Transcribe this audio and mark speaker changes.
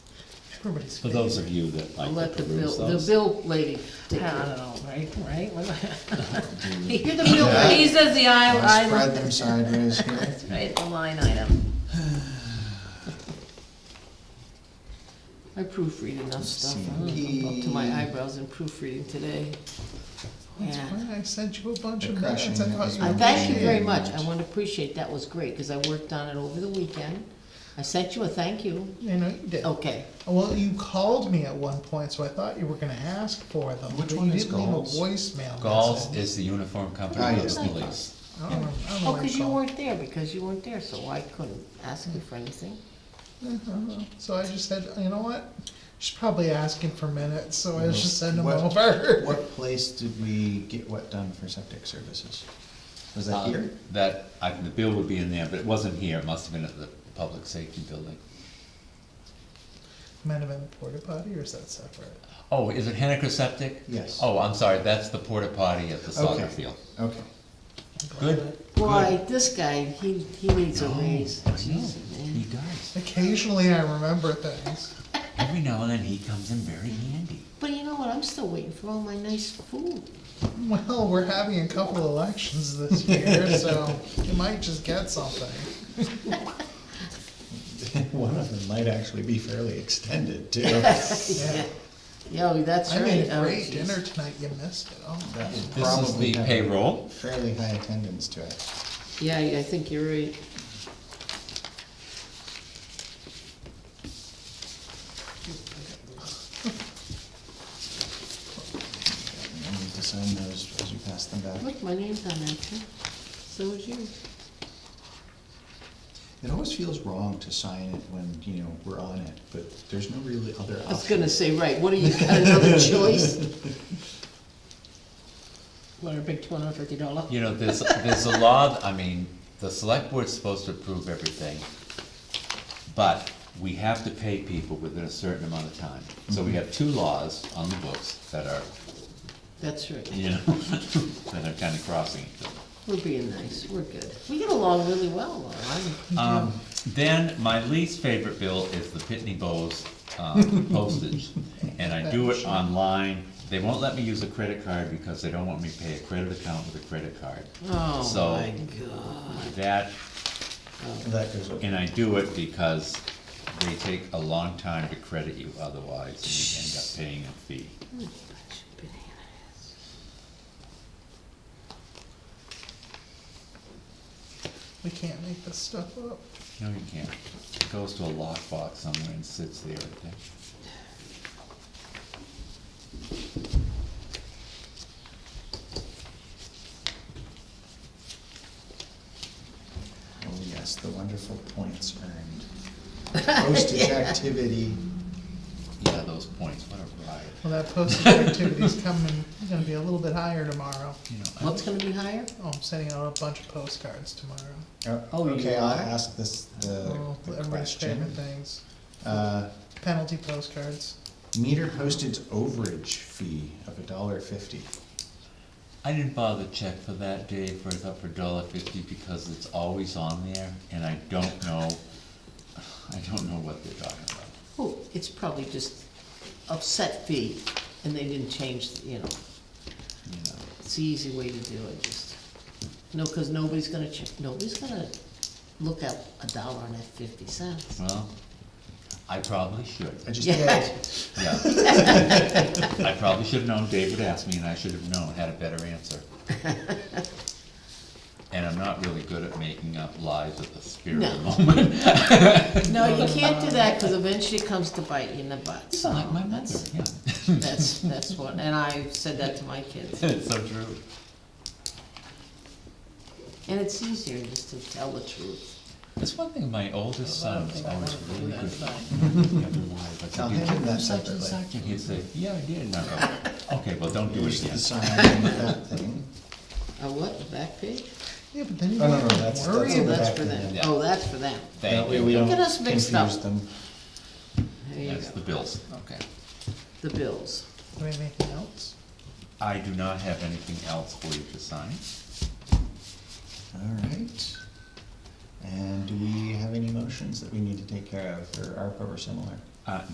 Speaker 1: Everybody's.
Speaker 2: For those of you that
Speaker 3: I'll
Speaker 2: like
Speaker 3: let
Speaker 2: to
Speaker 3: the bill,
Speaker 2: peruse
Speaker 3: the
Speaker 2: those.
Speaker 3: bill lady take care of it all, right, right? You're the bill
Speaker 4: Yeah.
Speaker 3: lady,
Speaker 5: He says the I, I.
Speaker 4: Spread them sideways here.
Speaker 5: That's right, the line item.
Speaker 3: I proofread enough stuff, I'm up to my eyebrows in proofreading today.
Speaker 1: That's
Speaker 3: Yeah.
Speaker 1: why I sent you a bunch
Speaker 4: The
Speaker 1: of minutes, I
Speaker 4: crushing
Speaker 1: thought
Speaker 4: is
Speaker 1: you
Speaker 3: I
Speaker 1: were.
Speaker 4: really-
Speaker 3: thank you very
Speaker 4: Yeah.
Speaker 3: much, I want to appreciate, that was great, because I worked on it over the weekend. I sent you a thank you,
Speaker 1: You know, you did.
Speaker 3: okay,
Speaker 1: Well, you called me at one point, so I thought you were gonna ask for them.
Speaker 4: Which
Speaker 1: but
Speaker 4: one
Speaker 1: you
Speaker 4: is
Speaker 1: didn't leave a
Speaker 4: Gauls?
Speaker 1: Voicemail.
Speaker 2: Gauls
Speaker 1: message.
Speaker 2: is the uniform
Speaker 4: Ah,
Speaker 2: company of
Speaker 4: yes,
Speaker 2: the
Speaker 4: thank you.
Speaker 2: police.
Speaker 1: I don't know- I don't know
Speaker 3: oh,
Speaker 1: why I
Speaker 3: because you
Speaker 1: called.
Speaker 3: weren't there, because you weren't there, so I couldn't ask you for anything.
Speaker 1: Uh-huh. So I just said, you know what? She's probably asking for minutes, so I just send them
Speaker 4: What-
Speaker 1: over.
Speaker 4: What place did we get what done for septic services? Was that
Speaker 2: Uh,
Speaker 4: here?
Speaker 2: That, I, the bill would be in there, but it wasn't here, it must have been at the public safety building.
Speaker 1: Might have been porta potty, or is that separate?
Speaker 2: Oh, is it Hennecker Septic?
Speaker 4: Yes.
Speaker 2: Oh, I'm sorry, that's the porta potty at the soccer
Speaker 4: Okay.
Speaker 2: field.
Speaker 4: Okay.
Speaker 2: Good.
Speaker 3: Boy, this guy, he, he needs a
Speaker 2: No,
Speaker 3: raise,
Speaker 2: I know.
Speaker 3: Jesus,
Speaker 2: He
Speaker 3: man.
Speaker 2: does.
Speaker 1: Occasionally, I remember things.
Speaker 2: Every now and then he comes in very handy.
Speaker 3: But you know what, I'm still waiting for all my nice food.
Speaker 1: Well, we're having a couple elections this year, so you might just get something.
Speaker 4: One of them might actually be fairly extended too.
Speaker 1: Yeah.
Speaker 3: Yo, that's
Speaker 1: I
Speaker 3: right.
Speaker 1: made a
Speaker 3: Oh,
Speaker 1: great
Speaker 3: jeez.
Speaker 1: dinner tonight. You missed it. Oh,
Speaker 4: That would
Speaker 2: This is
Speaker 4: probably
Speaker 2: the
Speaker 4: have
Speaker 2: payroll.
Speaker 4: Fairly high attendance to it.
Speaker 3: Yeah, I I think you're right.
Speaker 4: I need to sign those as you pass them back.
Speaker 3: Look, my name's on that too. So is yours.
Speaker 4: It always feels wrong to sign it when, you know, we're on it, but there's no really other option.
Speaker 3: I was gonna say, right, what do you, got another choice? Want a big two hundred and fifty dollar?
Speaker 2: You know, there's, there's a law, I mean, the select board's supposed to approve everything, but we have to pay people within a certain amount of time. So we have two laws on the books that are,
Speaker 3: That's right.
Speaker 2: you know, that are kinda crossing each other.
Speaker 3: We're being nice, we're good. We get along really well, Laura. I'm-
Speaker 2: Um, then, my least favorite bill is the Pitney Bowes, um, postage, and I do it online. They won't let me use a credit card because they don't want me to pay a credit account with a credit card.
Speaker 3: Oh,
Speaker 2: So-
Speaker 3: my God.
Speaker 2: That,
Speaker 4: That goes
Speaker 2: and
Speaker 4: over.
Speaker 2: I do it because they take a long time to credit you otherwise, and you end up paying a fee.
Speaker 1: we can't make this stuff up.
Speaker 2: No, you can't. It goes to a lockbox somewhere and sits there, I think.
Speaker 4: Oh, yes, the wonderful points earned. Postage activity.
Speaker 2: Yeah, those points, what a riot,
Speaker 1: Well, that postage activity's coming. Going to be a little bit higher tomorrow.
Speaker 2: you know. I-
Speaker 3: What's gonna be higher?
Speaker 1: Oh, I'm sending out a bunch of postcards tomorrow.
Speaker 4: Oh,
Speaker 3: Oh, you
Speaker 4: okay, I'll
Speaker 3: are?
Speaker 4: ask this, the
Speaker 1: Oh,
Speaker 4: the
Speaker 1: everybody's favorite
Speaker 4: Uh, question.
Speaker 1: things.
Speaker 4: Uh,
Speaker 1: Penalty postcards.
Speaker 4: meter postage overage fee of a dollar fifty.
Speaker 2: I didn't bother to check for that day for, for a dollar fifty because it's always on there and I don't know, I don't know what they're talking about.
Speaker 3: Oh, it's probably just upset fee, and they didn't change, you know,
Speaker 2: You know,
Speaker 3: it's the easy way to do it, just, no, cause nobody's gonna check, nobody's gonna look up a dollar and that fifty cents.
Speaker 2: well, I probably should,
Speaker 4: I just
Speaker 3: Yeah.
Speaker 4: did.
Speaker 2: yeah. I probably should've known, David asked me and I should've known, had a better answer. And I'm not really good at making up lies at the spirit of
Speaker 3: No.
Speaker 2: the moment.
Speaker 3: No, you can't do that, cause eventually it comes to bite you in the butt, so.
Speaker 2: Like my mother,
Speaker 3: that's-
Speaker 2: yeah.
Speaker 3: That's, that's what, and I said that to my kids,
Speaker 2: It's so true.
Speaker 3: and it's easier just to tell the truth.
Speaker 2: That's one thing my oldest son is always really good at.
Speaker 4: I'll
Speaker 2: I'll
Speaker 4: hand him that
Speaker 2: Such and
Speaker 4: separately.
Speaker 2: such, and he'd say, yeah, I did, and I go, okay, well, don't do
Speaker 4: Here's
Speaker 2: it
Speaker 4: the
Speaker 2: again.
Speaker 4: sign on that thing.
Speaker 3: A what, a back page?
Speaker 1: Yeah, but then you
Speaker 4: Oh, no,
Speaker 1: have
Speaker 4: no,
Speaker 1: to
Speaker 4: that's-
Speaker 1: worry
Speaker 4: that's
Speaker 3: Oh,
Speaker 4: in the
Speaker 1: about
Speaker 3: that's
Speaker 4: back
Speaker 3: for them,
Speaker 2: yeah.
Speaker 3: oh, that's for them,
Speaker 4: That
Speaker 2: Thank
Speaker 4: way we
Speaker 2: you.
Speaker 4: don't
Speaker 3: Get us mixed up.
Speaker 4: confuse them.
Speaker 3: there you
Speaker 2: That's the
Speaker 3: go,
Speaker 2: bills, okay.
Speaker 3: the bills.
Speaker 1: Do we have anything else?
Speaker 2: I do not have anything else for you to sign.
Speaker 4: All right. And do we have any motions that we need to take care of for ARPA or similar?
Speaker 2: Uh,